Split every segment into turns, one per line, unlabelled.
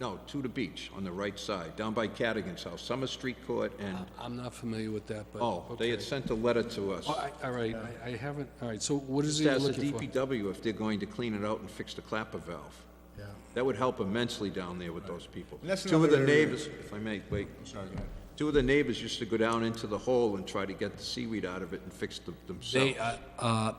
No, to the beach, on the right side, down by Cadigan's house, Summer Street Court and,
I'm not familiar with that, but...
oh, they had
Ah, okay.
sent a letter to us.
Oh, I- All right, I- I haven't, all right, so what is
Just
he
ask the
looking for?
DPW if they're going to clean it out and fix the clapper valve.
Yeah.
That would help immensely down there with those people.
And that's
Two of the
another area-
neighbors, if I may, wait.
Sorry, go ahead.
Two of the neighbors used to go down into the hole and try to get the seaweed out of it and fix them
They,
themselves.
uh, uh,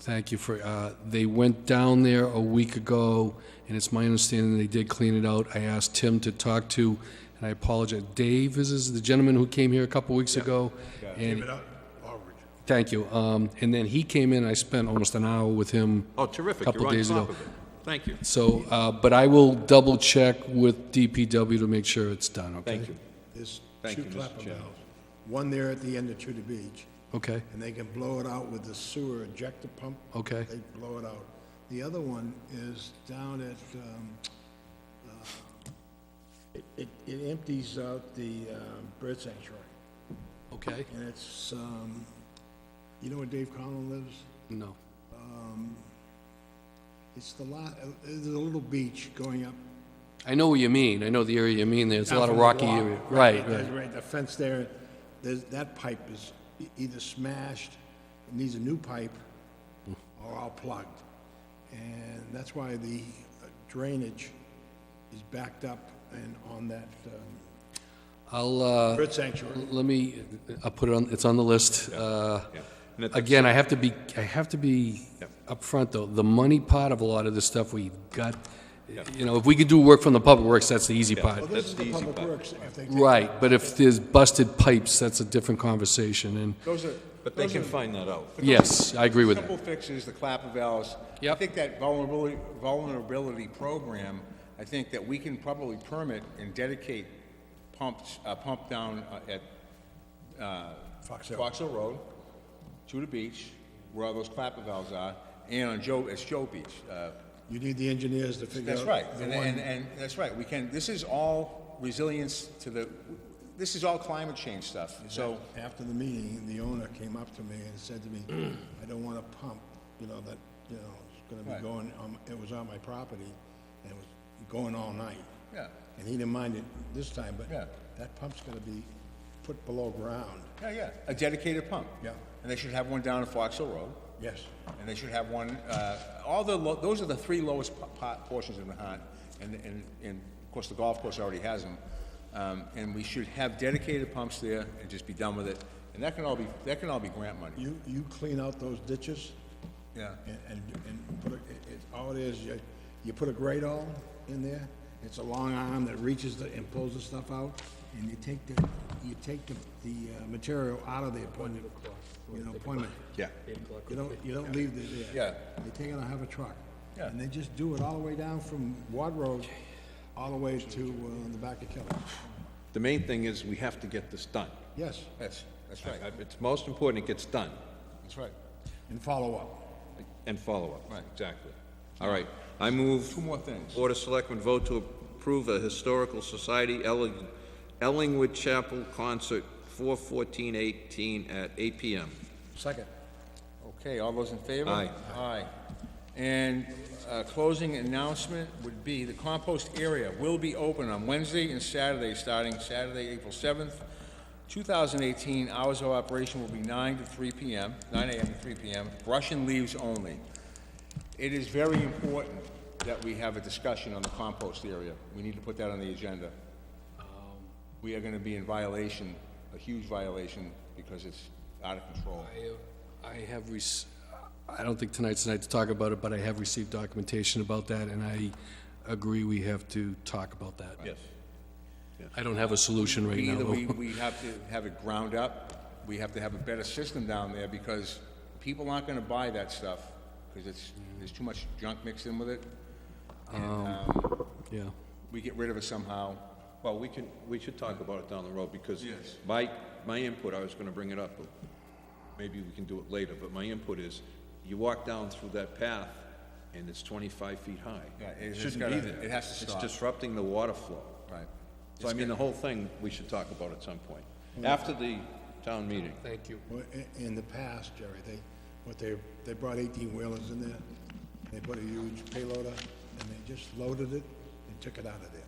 thank you for, uh, they went down there a week ago, and it's my understanding they did clean it out. I asked Tim to talk to, and I apologize, Dave is- is the gentleman who came here a couple weeks ago. and-
Give it up, Aldridge.
Thank you. Um, And then he came in, I spent almost an hour with him.
Oh, terrific,
Couple
you're on
days
top
ago.
of it. Thank you.
So, uh, but I will double-check with DPW to make sure it's done, okay?
Thank you.
There's
Thank
two
you, Mr.
clapper
Chairman.
valves, one there at the end of Tudor Beach,
Okay,
and they can blow it out with the sewer ejector pump.
Okay.
They blow it out. The other one is down at, um, uh, it- it, it empties out the um, bird sanctuary,
okay?
and it's, um, you know where Dave Conlon lives?
No.
It's the lot, uh, there's a little beach going up
I know what you mean, I know the area you mean, there's a
Down
lot of
from the
rocky
wall.
area. Right,
There's
right,
Right, the fence there, there's, that pipe is e- either smashed, it needs a new pipe, or all plugged. And that's why the uh, drainage is backed up and on that um,
I'll, uh,
bird sanctuary.
let me, I'll put it on, it's on the list. Uh,
Yeah. And at the-
Again, I have to be, I have to be upfront, though, the money part of a lot of this stuff we've got, you know, if we could do work from the public works, that's the easy part.
Well, this
That's
is
the
the
easy
public
part.
works, if they take.
Right, but if there's busted pipes, that's a different conversation, and,
Those are,
But they
those
can
are
find that out.
yes, I agree with
simple
that.
fixes, the clapper valves. I
Yep.
think that vulnerability, vulnerability program, I think that we can probably permit and dedicate pumps, uh, pump down uh, at uh,
Fox Hill.
Fox Hill Road, to the beach, where all those clapper valves are, and on Joe, it's Joe Beach. Uh,
You need the engineers to figure out.
That's right,
the
and,
one-
and, and, that's right, we can, this is all resilience to the, this is all climate change stuff, so,
After the meeting, the owner came up to me and said to me, I don't want to pump, you know, that, you know, it's gonna be
Right.
going, on- it was on my property, and it was going all night.
yeah,
And he didn't mind it this time, but
Yeah.
that pump's gonna be put below ground.
yeah, yeah, a dedicated pump.
Yeah.
And they should have one down at Fox Hill Road.
Yes.
And they should have one, uh, all the, lo- those are the three lowest po- po- portions in Nahat, and, and, and of course, the golf course already has them. Um, and we should have dedicated pumps there and just be done with it, and that can all be, that can all be grant money,
You, you clean out those ditches
yeah.
and, and, and put, a- it, it, all it is, you, you put a grate all in there, it's a long arm that reaches the, and pulls the stuff out, and you take the, you take the, the uh, material out of the appointment, you know, appointment.
Yeah.
You don't, you don't leave it there.
Yeah.
They take it out of a truck.
Yeah.
And they just do it all the way down from Ward Road, all the way to, uh, the back of Kelly.
The main thing is, we have to get this done.
Yes,
That's, that's
I-
right,
It's most important it gets done,
that's right.
and follow up.
and follow-up.
Right.
Exactly. All right, I move...
Two more things.
Board of Selectmen vote to approve a Historical Society Elling- Ellingwood Chapel Concert, 4/14/18 at 8 PM.
Second.
Okay, all those in favor?
Aye.
Aye. And uh, closing announcement would be the compost area will be open on Wednesday and Saturday, starting Saturday, April 7th, 2018. Hours of operation will be 9 to 3 p.m., 9 a.m. to 3 p.m., brush and leaves only. It is very important that we have a discussion on the compost area. We need to put that on the agenda. We are going to be in violation, a huge violation, because it's out of control.
I have rec, I don't think tonight's the night to talk about it, but I have received documentation about that, and I agree we have to talk about that.
Yes.
I don't have a solution right now,
Either we,
though.
we have to have it ground up, we have to have a better system down there, because people aren't gonna buy that stuff, because it's, there's too much junk mixed in with it.
Yeah.
We get rid of it somehow.
Well, we can, we should talk about it down the road, because
Yes.
my, my input, I was gonna bring it up, but maybe we can do it later, but my input is, you walk down through that path, and it's 25 feet high.
Yeah, it- it's
Shouldn't
gotta-
be there.
it has to stop.
It's disrupting the water flow.
Right.
So I mean, the whole thing, we should talk about at some point, after the town meeting.
Thank you.
Well, i- In the past, Jerry, they, what they, they brought eighteen wheelers in there, they put a huge payloader, and they just loaded it and took it out of there.